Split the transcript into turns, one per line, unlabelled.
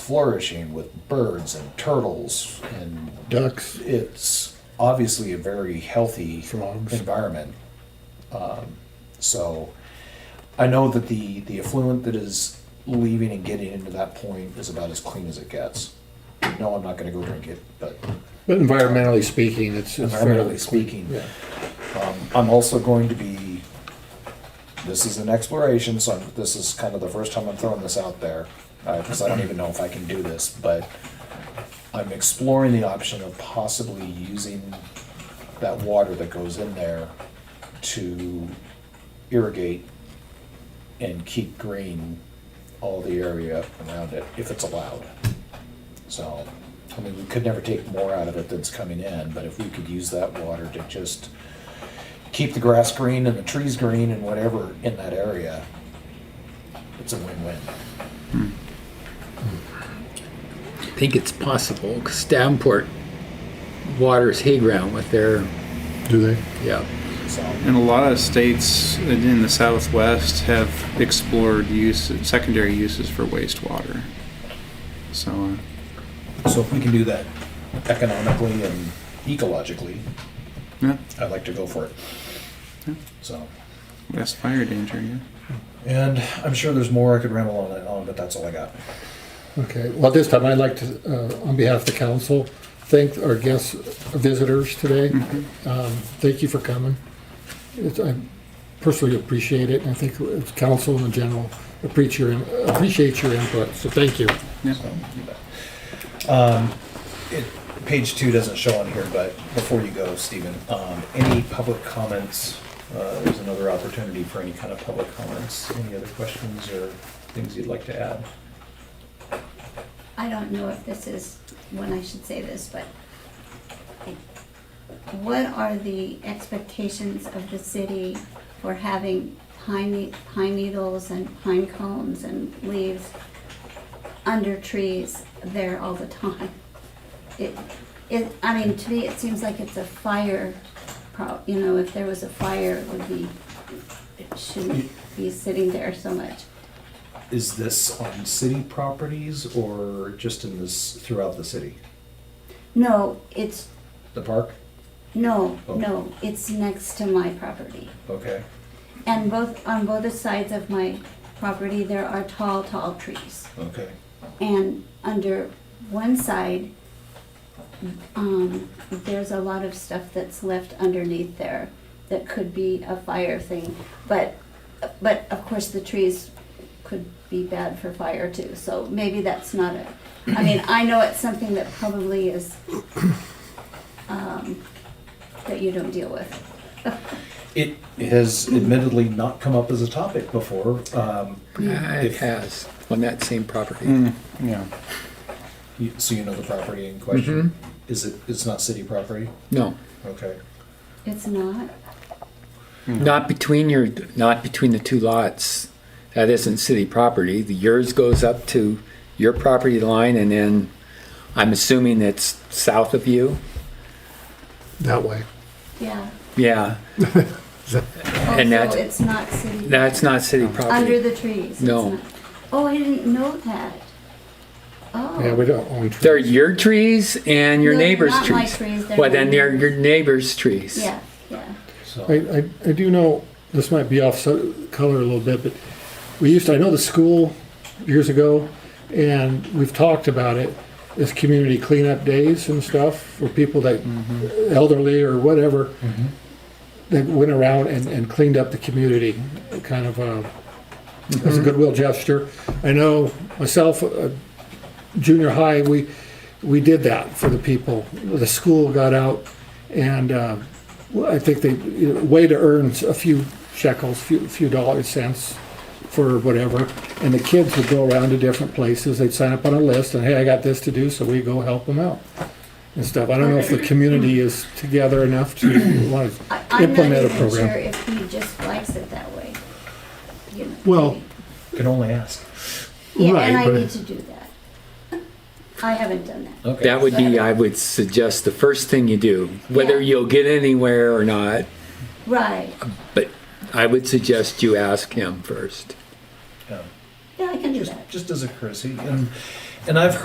flourishing with birds and turtles and
ducks.
it's obviously a very healthy
Frogs.
environment. Um, so I know that the, the affluent that is leaving and getting into that point is about as clean as it gets. No, I'm not going to go drink it, but
But environmentally speaking, it's, it's fairly
environmentally speaking,
Yeah.
um, I'm also going to be. This is an exploration, so I'm, this is kind of the first time I'm throwing this out there because I don't even know if I can do this, but I'm exploring the option of possibly using that water that goes in there to irrigate and keep green all the area around it if it's allowed. So, I mean, we could never take more out of it that's coming in, but if we could use that water to just keep the grass green and the trees green and whatever in that area, it's a win-win.
I think it's possible because Davenport waters hay ground with their,
Do they?
yeah.
So,
And a lot of states in the Southwest have explored use, secondary uses for wastewater. So, uh,
so if we can do that economically and ecologically,
yeah,
I'd like to go for it. So,
that's fire danger, yeah.
and I'm sure there's more I could ramble on and on, but that's all I got.
Okay. Well, at this time, I'd like to, uh, on behalf of the council, thank our guests, visitors today. Um, thank you for coming. It's, I personally appreciate it, and I think it's council in general appreciate your in- appreciate your input. So thank you.
Yeah,
Um, It, page two doesn't show on here, but before you go, Stephen, um, any public comments? Uh, there's another opportunity for any kind of public comments. Any other questions or things you'd like to add?
I don't know if this is when I should say this, but what are the expectations of the city for having pine, ne- pine needles and pine cones and leaves under trees there all the time? It, it, I mean, to me, it seems like it's a fire pro, you know, if there was a fire, it would be, it shouldn't be sitting there so much.
Is this on city properties or just in this, throughout the city?
No, it's
The park?
No,
Oh.
no, it's next to my property.
Okay.
And both, on both sides of my property, there are tall, tall trees.
Okay.
And under one side, um, there's a lot of stuff that's left underneath there that could be a fire thing. But, but of course, the trees could be bad for fire too, so maybe that's not a, I mean, I know it's something that probably is, um, that you don't deal with.
It has admittedly not come up as a topic before. Um,
It
If-
has on that same property.
yeah.
you- So you know the property in question? Is it, it's not city property?
No,
Okay.
It's not?
not between your, not between the two lots. That isn't city property. The yours goes up to your property line, and then I'm assuming it's south of you.
That way.
Yeah.
Yeah,
Oh,
And that-
so it's not city.
that's not city property.
Under the trees? it's
No.
not. Oh, I didn't know that. Oh.
Yeah, we don't own
They're
trees.
your trees and your
No, they're
neighbor's
not
trees.
my trees, they're
well, then
my
they're
neighbor's.
your neighbor's trees.
Yeah, yeah.
So.
I, I, I do know, this might be off so- color a little bit, but we used, to- I know the school years ago, and we've talked about it, is community cleanup days and stuff for people that elderly or whatever, that went around and, and cleaned up the community, kind of, uh, as
Mm-hmm.
a goodwill gesture. I know myself, uh, junior high, we, we did that for the people. The school got out and, uh, well, I think they, you know, way to earn a few shekels, few, few dollars, cents for whatever. And the kids would go around to different places. They'd sign up on a list and, hey, I got this to do, so we go help them out and stuff. I don't know if the community is together enough to want to
I- I'm not
implement a
even
program.
sure if he just likes it that way. You know,
Well,
Can only ask.
Yeah, and
right,
I
but-
need to do that. I haven't done that.
Okay.
That would be, I would suggest, the first thing you do, whether
Yeah.
you'll get anywhere or not.
Right.
But I would suggest you ask him first.
Yeah.
Yeah, I can do
Just,
that.
just as a courtesy, and And I've